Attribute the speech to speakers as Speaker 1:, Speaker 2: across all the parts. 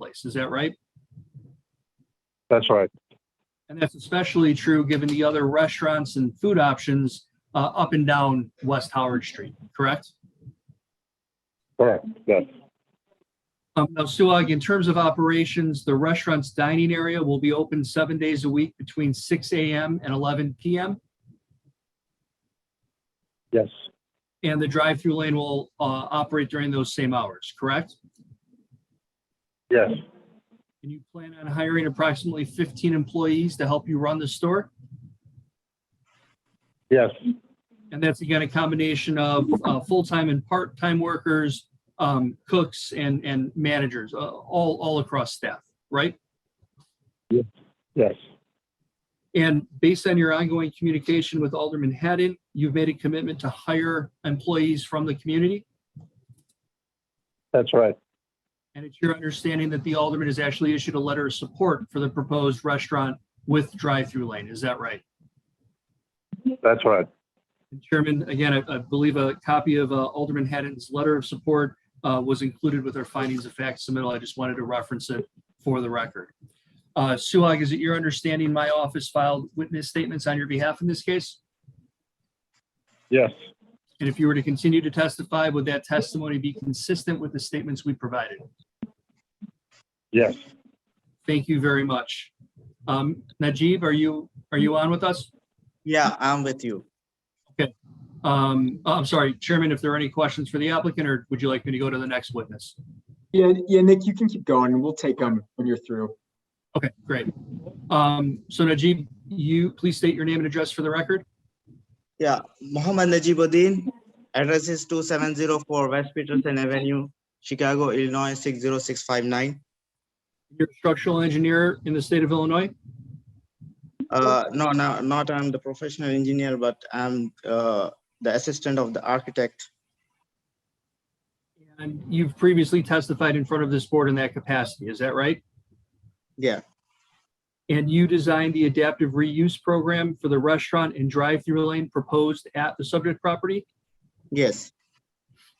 Speaker 1: six, is that right?
Speaker 2: That's right.
Speaker 1: And that's especially true given the other restaurants and food options uh, up and down West Howard Street, correct?
Speaker 2: Correct. Yes.
Speaker 1: Um, Now, Suag, in terms of operations, the restaurant's dining area will be open seven days a week between 6 AM and 11 PM,
Speaker 2: Yes.
Speaker 1: and the drive-through lane will uh, operate during those same hours, correct?
Speaker 2: Yes.
Speaker 1: And you plan on hiring approximately 15 employees to help you run the store?
Speaker 2: Yes.
Speaker 1: And that's again a combination of uh, full-time and part-time workers, um, cooks and, and managers, uh, all, all across staff, right?
Speaker 2: Yes.
Speaker 1: And based on your ongoing communication with Alderman Haddon, you've made a commitment to hire employees from the community?
Speaker 2: That's right.
Speaker 1: And it's your understanding that the Alderman has actually issued a letter of support for the proposed restaurant with drive-through lane, is that right?
Speaker 2: That's right.
Speaker 1: And Chairman, again, I- I believe a copy of uh, Alderman Haddon's letter of support uh, was included with our findings of fact submittal. I just wanted to reference it for the record. Uh, Suhag, is it your understanding my office filed witness statements on your behalf in this case?
Speaker 2: Yes.
Speaker 1: And if you were to continue to testify, would that testimony be consistent with the statements we provided?
Speaker 2: Yes.
Speaker 1: Thank you very much. Um, Najib, are you, are you on with us?
Speaker 3: Yeah, I'm with you.
Speaker 1: Um, I'm sorry, Chairman, if there are any questions for the applicant, or would you like me to go to the next witness?
Speaker 4: Yeah, yeah, Nick, you can keep going and we'll take them when you're through.
Speaker 1: Okay, great. Um, so Najib, you please state your name and address for the record.
Speaker 3: Yeah, Mohammed Najibuddin, address is two seven zero four West Peterson Avenue, Chicago, Illinois, six zero six five nine.
Speaker 1: You're a structural engineer in the state of Illinois.
Speaker 3: Uh, no, no, not I'm the professional engineer, but I'm, uh, the assistant of the architect.
Speaker 1: And you've previously testified in front of this board in that capacity, is that right?
Speaker 3: Yeah,
Speaker 1: And you designed the adaptive reuse program for the restaurant and drive-through lane proposed at the subject property?
Speaker 3: yes,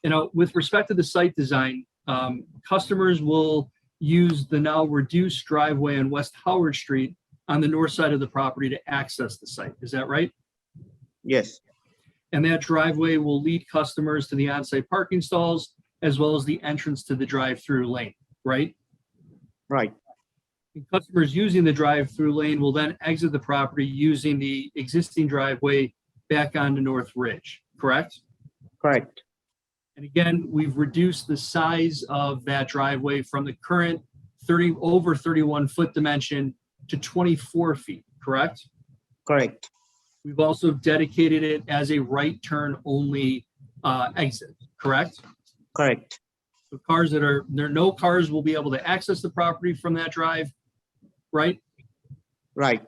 Speaker 1: You know, with respect to the site design, um, customers will use the now reduced driveway on West Howard Street on the north side of the property to access the site, is that right?
Speaker 3: yes,
Speaker 1: And that driveway will lead customers to the on-site parking stalls as well as the entrance to the drive-through lane, right?
Speaker 3: right,
Speaker 1: And Customers using the drive-through lane will then exit the property using the existing driveway back onto North Ridge, correct?
Speaker 3: correct,
Speaker 1: And again, we've reduced the size of that driveway from the current 30, over 31 foot dimension to 24 feet, correct?
Speaker 3: correct,
Speaker 1: We've also dedicated it as a right turn only uh, exit, correct?
Speaker 3: correct,
Speaker 1: So cars that are, there, no cars will be able to access the property from that drive, right?
Speaker 3: right,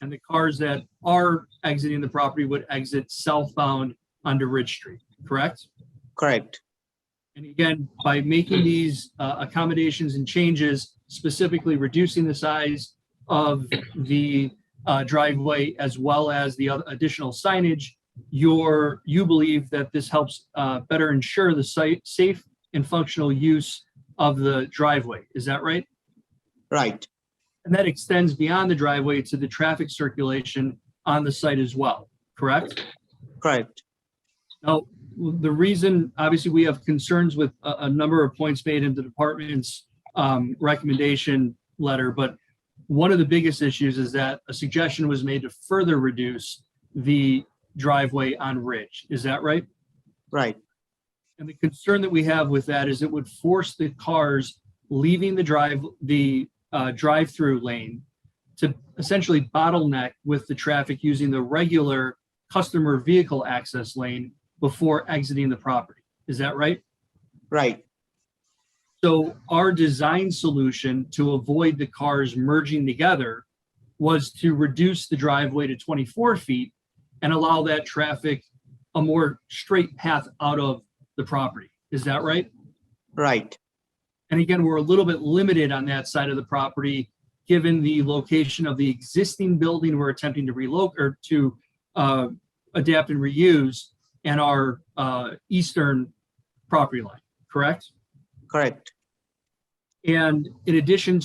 Speaker 1: And the cars that are exiting the property would exit southbound onto Ridge Street, correct?
Speaker 3: correct,
Speaker 1: And again, by making these uh, accommodations and changes, specifically reducing the size of the uh, driveway as well as the other additional signage, your, you believe that this helps uh, better ensure the site, safe and functional use of the driveway. Is that right?
Speaker 3: right,
Speaker 1: And that extends beyond the driveway to the traffic circulation on the site as well, correct?
Speaker 3: correct,
Speaker 1: Now, the reason, obviously, we have concerns with a, a number of points made in the department's um, recommendation letter, but one of the biggest issues is that a suggestion was made to further reduce the driveway on Ridge. Is that right?
Speaker 3: right,
Speaker 1: And the concern that we have with that is it would force the cars leaving the drive, the uh, drive-through lane to essentially bottleneck with the traffic using the regular customer vehicle access lane before exiting the property. Is that right?
Speaker 3: right,
Speaker 1: So our design solution to avoid the cars merging together was to reduce the driveway to 24 feet and allow that traffic a more straight path out of the property. Is that right?
Speaker 3: right,
Speaker 1: And again, we're a little bit limited on that side of the property, given the location of the existing building we're attempting to relocate or to uh, adapt and reuse and our uh, eastern property line, correct?
Speaker 3: correct,
Speaker 1: And in addition